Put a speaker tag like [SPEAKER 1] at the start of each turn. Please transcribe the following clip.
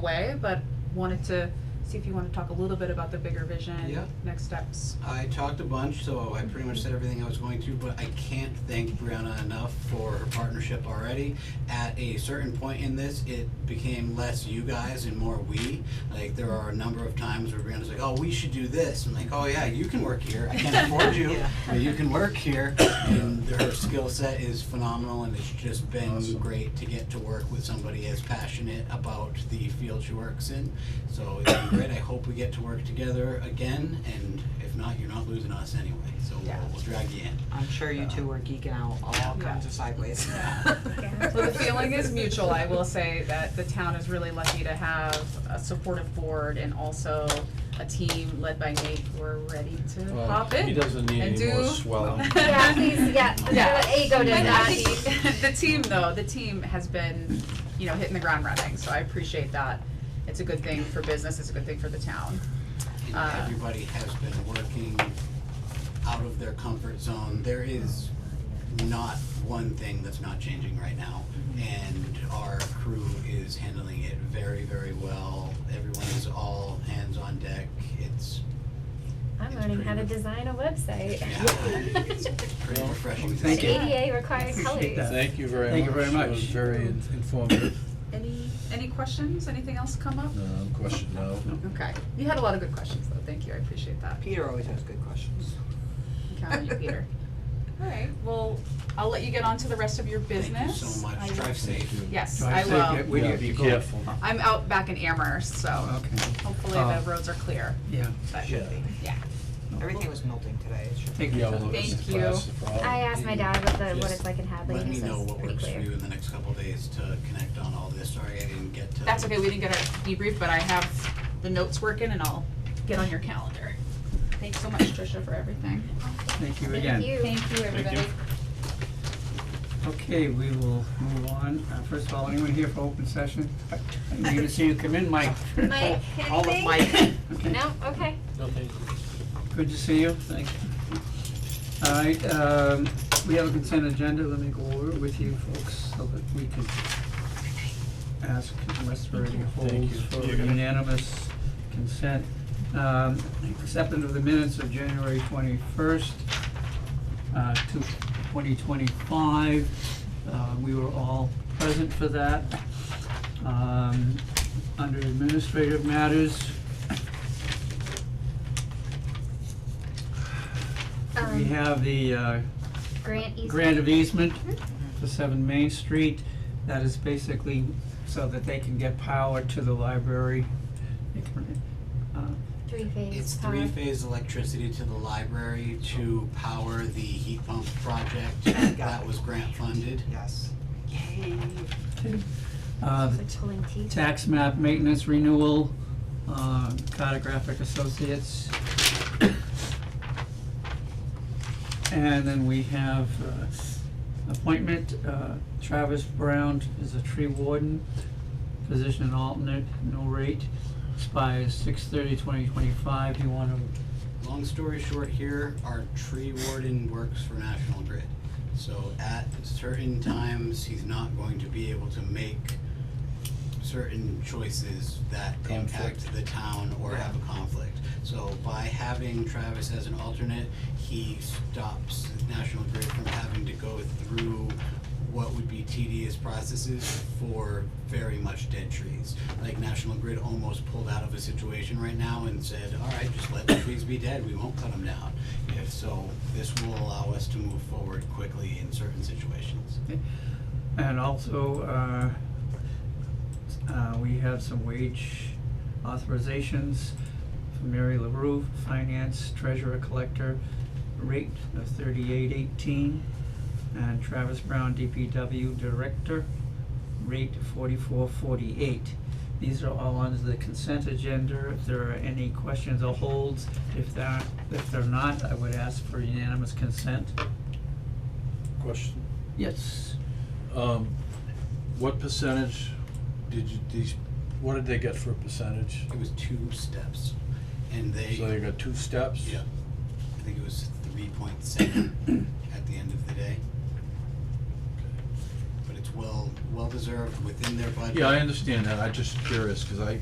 [SPEAKER 1] way, but wanted to see if you want to talk a little bit about the bigger vision,
[SPEAKER 2] Yeah.
[SPEAKER 1] next steps.
[SPEAKER 2] I talked a bunch, so I pretty much said everything I was going to, but I can't thank Brianna enough for her partnership already. At a certain point in this, it became less you guys and more we. Like, there are a number of times where Brianna's like, oh, we should do this. I'm like, oh, yeah, you can work here. I can't afford you, but you can work here. And her skill set is phenomenal, and it's just been
[SPEAKER 3] Awesome.
[SPEAKER 2] great to get to work with somebody as passionate about the field she works in. So it's been great. I hope we get to work together again, and if not, you're not losing us anyway. So we'll,
[SPEAKER 4] Yeah.
[SPEAKER 2] we'll drag you in.
[SPEAKER 4] I'm sure you two were geeking out all kinds of sideways.
[SPEAKER 1] So the feeling is mutual, I will say that the town is really lucky to have a supportive board and also a team led by Nate who are ready to
[SPEAKER 3] Well,
[SPEAKER 1] hop in.
[SPEAKER 3] He doesn't need
[SPEAKER 1] and
[SPEAKER 3] any more
[SPEAKER 1] do-
[SPEAKER 3] swelling.
[SPEAKER 5] Yeah, please, yeah,
[SPEAKER 1] Yeah.
[SPEAKER 5] the ego does
[SPEAKER 1] And I
[SPEAKER 5] not need.
[SPEAKER 1] think the team though, the team has been, you know, hitting the ground running, so I appreciate that. It's a good thing for business, it's a good thing for the town.
[SPEAKER 2] And
[SPEAKER 1] Uh.
[SPEAKER 2] everybody has been working out of their comfort zone. There is not one thing that's not changing right now, and our crew is handling it very, very well. Everyone is all hands on deck. It's
[SPEAKER 5] I'm learning how to design a website.
[SPEAKER 2] Yeah. pretty refreshing. to
[SPEAKER 6] Thank
[SPEAKER 2] see.
[SPEAKER 6] you.
[SPEAKER 5] ADA required
[SPEAKER 6] Appreciate
[SPEAKER 5] colors.
[SPEAKER 6] that.
[SPEAKER 3] Thank you very much.
[SPEAKER 6] Thank you very
[SPEAKER 3] That was
[SPEAKER 6] much.
[SPEAKER 3] very in- informative.
[SPEAKER 1] Any, any questions, anything else come up?
[SPEAKER 3] No, question now.
[SPEAKER 1] Okay, you had a lot of good questions though, thank you, I appreciate that.
[SPEAKER 4] Peter always has good questions.
[SPEAKER 1] I'm counting on you, Peter. All right, well, I'll let you get on to the rest of your
[SPEAKER 2] Thank you
[SPEAKER 1] business.
[SPEAKER 2] so much.
[SPEAKER 1] I-
[SPEAKER 2] Drive safe.
[SPEAKER 1] Yes,
[SPEAKER 6] Try
[SPEAKER 1] I
[SPEAKER 6] to take it
[SPEAKER 1] will.
[SPEAKER 6] with you,
[SPEAKER 3] Yeah,
[SPEAKER 6] be
[SPEAKER 3] be
[SPEAKER 6] careful.
[SPEAKER 1] I'm out back in Amherst, so
[SPEAKER 2] Uh,
[SPEAKER 6] Okay,
[SPEAKER 1] hopefully
[SPEAKER 6] Oh.
[SPEAKER 1] the roads are clear,
[SPEAKER 6] yeah.
[SPEAKER 1] but,
[SPEAKER 3] Yeah.
[SPEAKER 1] yeah.
[SPEAKER 4] Everything was melting today, it should.
[SPEAKER 6] Take
[SPEAKER 3] Yeah,
[SPEAKER 6] your
[SPEAKER 3] well,
[SPEAKER 6] time.
[SPEAKER 1] Thank
[SPEAKER 3] it's a
[SPEAKER 1] you.
[SPEAKER 3] class of problem.
[SPEAKER 5] I uh, asked my dad what the, what
[SPEAKER 3] Just
[SPEAKER 5] it's like in Hadley,
[SPEAKER 2] Let
[SPEAKER 5] and
[SPEAKER 2] me
[SPEAKER 5] he
[SPEAKER 2] know
[SPEAKER 5] says it's
[SPEAKER 2] what
[SPEAKER 5] pretty
[SPEAKER 2] works for
[SPEAKER 5] clear.
[SPEAKER 2] you in the next couple days to connect on all this. Sorry, I didn't get to.
[SPEAKER 1] That's okay, we didn't get our debrief, but I have the notes working and I'll get on your calendar. Thanks so much, Tricia, for everything.
[SPEAKER 6] Thank you again.
[SPEAKER 5] Thank you.
[SPEAKER 1] Thank you, everybody.
[SPEAKER 6] Okay, we will move on. Uh, First of all, anyone here for open session? I'm going to see you come in, Mike.
[SPEAKER 5] Mike,
[SPEAKER 4] All of
[SPEAKER 5] anything?
[SPEAKER 4] my
[SPEAKER 6] Okay.
[SPEAKER 5] No, okay.
[SPEAKER 3] No, thank you.
[SPEAKER 6] Good to see you, thank you. All right, um, we have a consent agenda, let me go over it with you folks so that we can ask unless there are any
[SPEAKER 3] Thank
[SPEAKER 6] holds
[SPEAKER 3] you.
[SPEAKER 6] for
[SPEAKER 3] You're gonna-
[SPEAKER 6] unanimous consent. Um, acceptance of the minutes of January twenty-first, uh, to twenty twenty-five. Uh, we were all present for that. Um, under administrative matters, we
[SPEAKER 5] Um,
[SPEAKER 6] have the, uh,
[SPEAKER 5] grant easement.
[SPEAKER 6] grant of easement for seven Main Street. That is basically so that they can get power to the library. They can, uh,
[SPEAKER 5] Three phase.
[SPEAKER 2] It's
[SPEAKER 5] power.
[SPEAKER 2] three phase electricity to the library to power the heat pump project that was grant funded.
[SPEAKER 4] Yes.
[SPEAKER 6] Uh,
[SPEAKER 5] It's like pulling teeth.
[SPEAKER 6] tax map maintenance renewal, uh, cartographic associates. And then we have, uh, appointment, uh, Travis Brown is a tree warden, position alternate, no rate, expires six thirty twenty twenty-five, you wanna
[SPEAKER 2] Long story short here, our tree warden works for National Grid. So at certain times, he's not going to be able to make certain choices that impact
[SPEAKER 3] Conflict.
[SPEAKER 2] the town or have a conflict. So by having Travis as an alternate, he stops National Grid from having to go through what would be tedious processes for very much dead trees. Like National Grid almost pulled out of a situation right now and said, all right, just let the trees be dead, we won't cut them down. If so, this will allow us to move forward quickly in certain situations.
[SPEAKER 6] And also, uh, uh, we have some wage authorizations for Mary LaRue, Finance Treasurer Collector, rate of thirty-eight eighteen. And Travis Brown, DPW Director, rate forty-four forty-eight. These are all under the consent agenda. If there are any questions or holds, if there, if they're not, I would ask for unanimous consent.
[SPEAKER 3] Question,
[SPEAKER 6] Yes.
[SPEAKER 3] um, what percentage did you, these, what did they get for a percentage?
[SPEAKER 2] It was two steps, and they.
[SPEAKER 3] So they got two steps?
[SPEAKER 2] Yeah, I think it was three point seven at the end of the day,
[SPEAKER 3] Okay.
[SPEAKER 2] but it's well, well deserved within their budget.
[SPEAKER 3] Yeah, I understand that, I just curious, cause I,